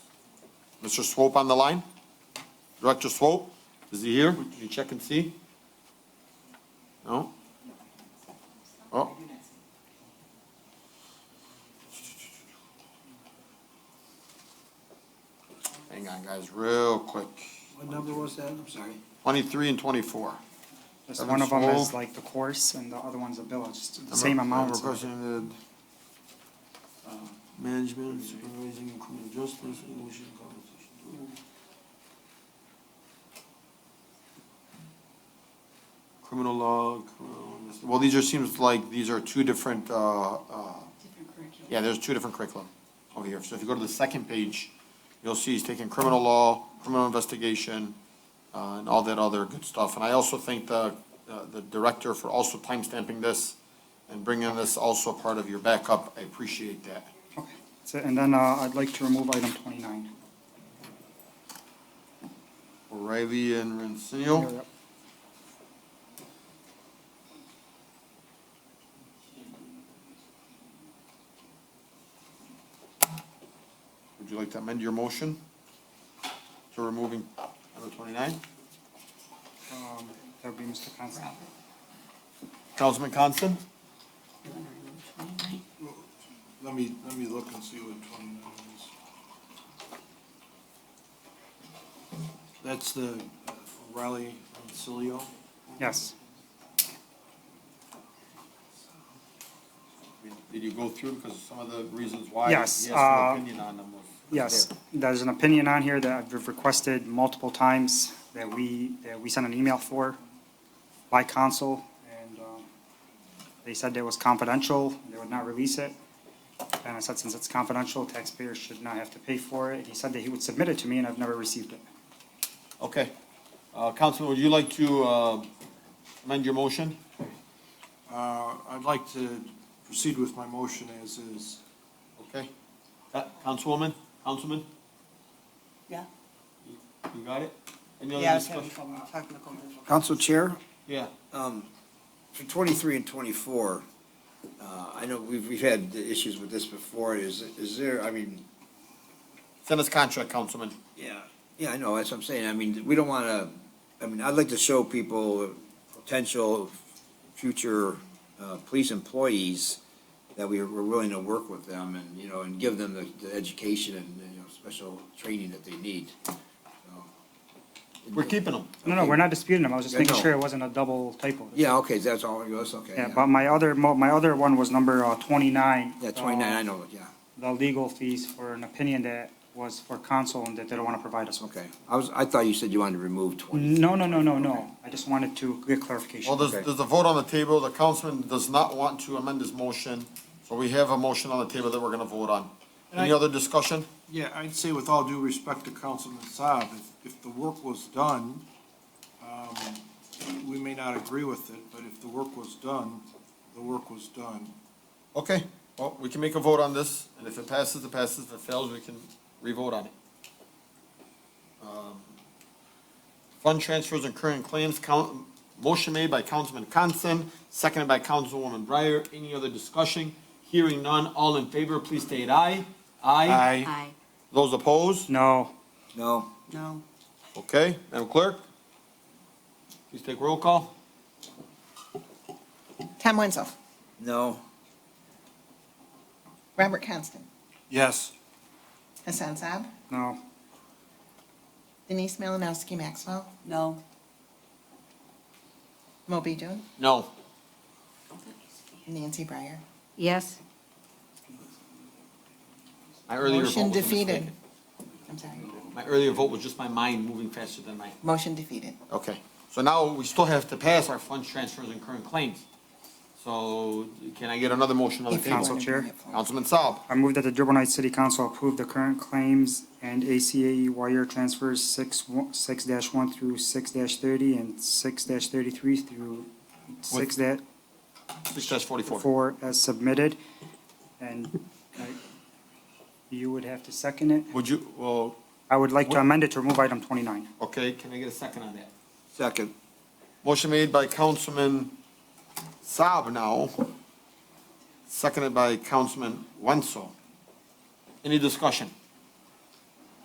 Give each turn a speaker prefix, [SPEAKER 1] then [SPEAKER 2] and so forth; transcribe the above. [SPEAKER 1] Mr. Swope on the line? Director Swope, is he here? Would you check and see? No? Oh. Hang on, guys, real quick.
[SPEAKER 2] What number was that? I'm sorry.
[SPEAKER 1] Twenty-three and twenty-four.
[SPEAKER 3] Just one of them is
[SPEAKER 1] Swole.
[SPEAKER 3] like the course and the other one's a bill, it's just the same amount. so-
[SPEAKER 1] Represented
[SPEAKER 4] Management, supervising, and criminal justice, and motion compensation.
[SPEAKER 1] criminal law, criminal, well, these are, seems like these are two different, uh, uh,
[SPEAKER 5] Different curriculum.
[SPEAKER 1] Yeah, there's two different curriculum over here. So if you go to the second page, you'll see he's taking criminal law, criminal investigation, uh, and all that other good stuff. And I also thank the, uh, the director for also timestamping this and bringing this also part of your backup. I appreciate that.
[SPEAKER 3] Okay. So- And then uh, I'd like to remove item twenty-nine.
[SPEAKER 1] O'Reilly and
[SPEAKER 3] Yep,
[SPEAKER 1] Rancio.
[SPEAKER 3] yep.
[SPEAKER 1] Would you like to amend your motion to removing number twenty-nine?
[SPEAKER 3] Um, That would be Mr. Constant.
[SPEAKER 1] Councilman Constant?
[SPEAKER 4] Let me, let me look and see what twenty-nine is. That's the uh, O'Reilly and Cilio.
[SPEAKER 3] Yes,
[SPEAKER 1] Did you go through, because some of the reasons why he
[SPEAKER 3] Yes,
[SPEAKER 1] has an
[SPEAKER 3] uh,
[SPEAKER 1] opinion on them was.
[SPEAKER 3] yes. There's an opinion on here that I've requested multiple times that we, that we sent an email for by council. And um, they said it was confidential, they would not release it. And I said, since it's confidential, taxpayers should not have to pay for it. He said that he would submit it to me and I've never received it.
[SPEAKER 1] Okay. Uh, Councilman, would you like to uh, amend your motion?
[SPEAKER 4] Uh, I'd like to proceed with my motion as is.
[SPEAKER 1] Okay. Uh, Councilwoman, Councilman,
[SPEAKER 5] Yeah.
[SPEAKER 1] you got it? Any
[SPEAKER 5] Yeah,
[SPEAKER 1] other
[SPEAKER 5] I was having
[SPEAKER 1] discussion?
[SPEAKER 5] trouble, technical difficulty.
[SPEAKER 6] Council Chair,
[SPEAKER 1] Yeah.
[SPEAKER 6] um, for twenty-three and twenty-four, uh, I know we've, we've had issues with this before, is, is there, I mean,
[SPEAKER 1] Send us contract, Councilman.
[SPEAKER 6] yeah, yeah, I know, that's what I'm saying, I mean, we don't wanna, I mean, I'd like to show people potential future, uh, police employees that we we're willing to work with them and, you know, and give them the, the education and, you know, special training that they need.
[SPEAKER 1] We're keeping them.
[SPEAKER 3] No, no, we're not disputing them, I was just
[SPEAKER 6] Yeah,
[SPEAKER 3] making
[SPEAKER 6] no.
[SPEAKER 3] sure it wasn't a double typo.
[SPEAKER 6] Yeah, okay, that's all, that's okay.
[SPEAKER 3] Yeah, but my other, mo- my other one was number uh, twenty-nine.
[SPEAKER 6] Yeah, twenty-nine, I
[SPEAKER 3] uh,
[SPEAKER 6] know, yeah.
[SPEAKER 3] The legal fees for an opinion that was for counsel and that they don't want to provide us with.
[SPEAKER 6] Okay, I was, I thought you said you wanted to remove twenty.
[SPEAKER 3] No, no, no, no, no, I just wanted to get clarification.
[SPEAKER 1] Well, there's,
[SPEAKER 6] Okay.
[SPEAKER 1] there's a vote on the table. The councilman does not want to amend his motion. So we have a motion on the table that we're going to vote on. Any
[SPEAKER 4] I-
[SPEAKER 1] other discussion?
[SPEAKER 4] Yeah, I'd say with all due respect to Councilman Saab, if, if the work was done, um, we may not agree with it, but if the work was done, the work was done.
[SPEAKER 1] Okay, well, we can make a vote on this, and if it passes, it passes. If it fails, we can re-vote on it. Um, Fund transfers and current claims, count, motion made by Councilman Constan, seconded by Councilwoman Breyer. Any other discussion? Hearing none, all in favor, please state aye. Aye.
[SPEAKER 5] Aye.
[SPEAKER 1] Those opposed?
[SPEAKER 3] No,
[SPEAKER 6] No,
[SPEAKER 5] No.
[SPEAKER 1] Okay, Madam Clerk? Please take roll call.
[SPEAKER 7] Tom Wenzel,
[SPEAKER 6] no,
[SPEAKER 7] Robert Constant,
[SPEAKER 4] Yes.
[SPEAKER 7] Hassan Saab,
[SPEAKER 3] no,
[SPEAKER 7] Denise Malinowski Maxwell,
[SPEAKER 5] No.
[SPEAKER 7] Moby Dun,
[SPEAKER 1] No.
[SPEAKER 7] Nancy Breyer.
[SPEAKER 5] Yes.
[SPEAKER 1] My earlier vote was a
[SPEAKER 7] Motion defeated.
[SPEAKER 1] mistake.
[SPEAKER 7] I'm sorry.
[SPEAKER 1] My earlier vote was just my mind moving faster than my
[SPEAKER 7] Motion defeated.
[SPEAKER 1] Okay, so now we still have to pass our funds transfers and current claims. So can I get another motion on the
[SPEAKER 7] If you want
[SPEAKER 1] table?
[SPEAKER 3] Council
[SPEAKER 7] to
[SPEAKER 3] Chair.
[SPEAKER 7] bring it forward.
[SPEAKER 1] Councilman Saab,
[SPEAKER 3] I move that the Dearborn Heights City Council approve the current claims and ACAE E wire transfers six, one- six dash one through six dash thirty and six dash thirty-three through six dash
[SPEAKER 1] six dash forty-four.
[SPEAKER 3] four as uh, submitted. And uh, you would have to second it.
[SPEAKER 1] Would you, well,
[SPEAKER 3] I would like to amend it to remove item 29.
[SPEAKER 1] okay, can I get a second on that?
[SPEAKER 6] second,
[SPEAKER 1] Motion made by Councilman Saab now, seconded by Councilman Wenzel. Any discussion?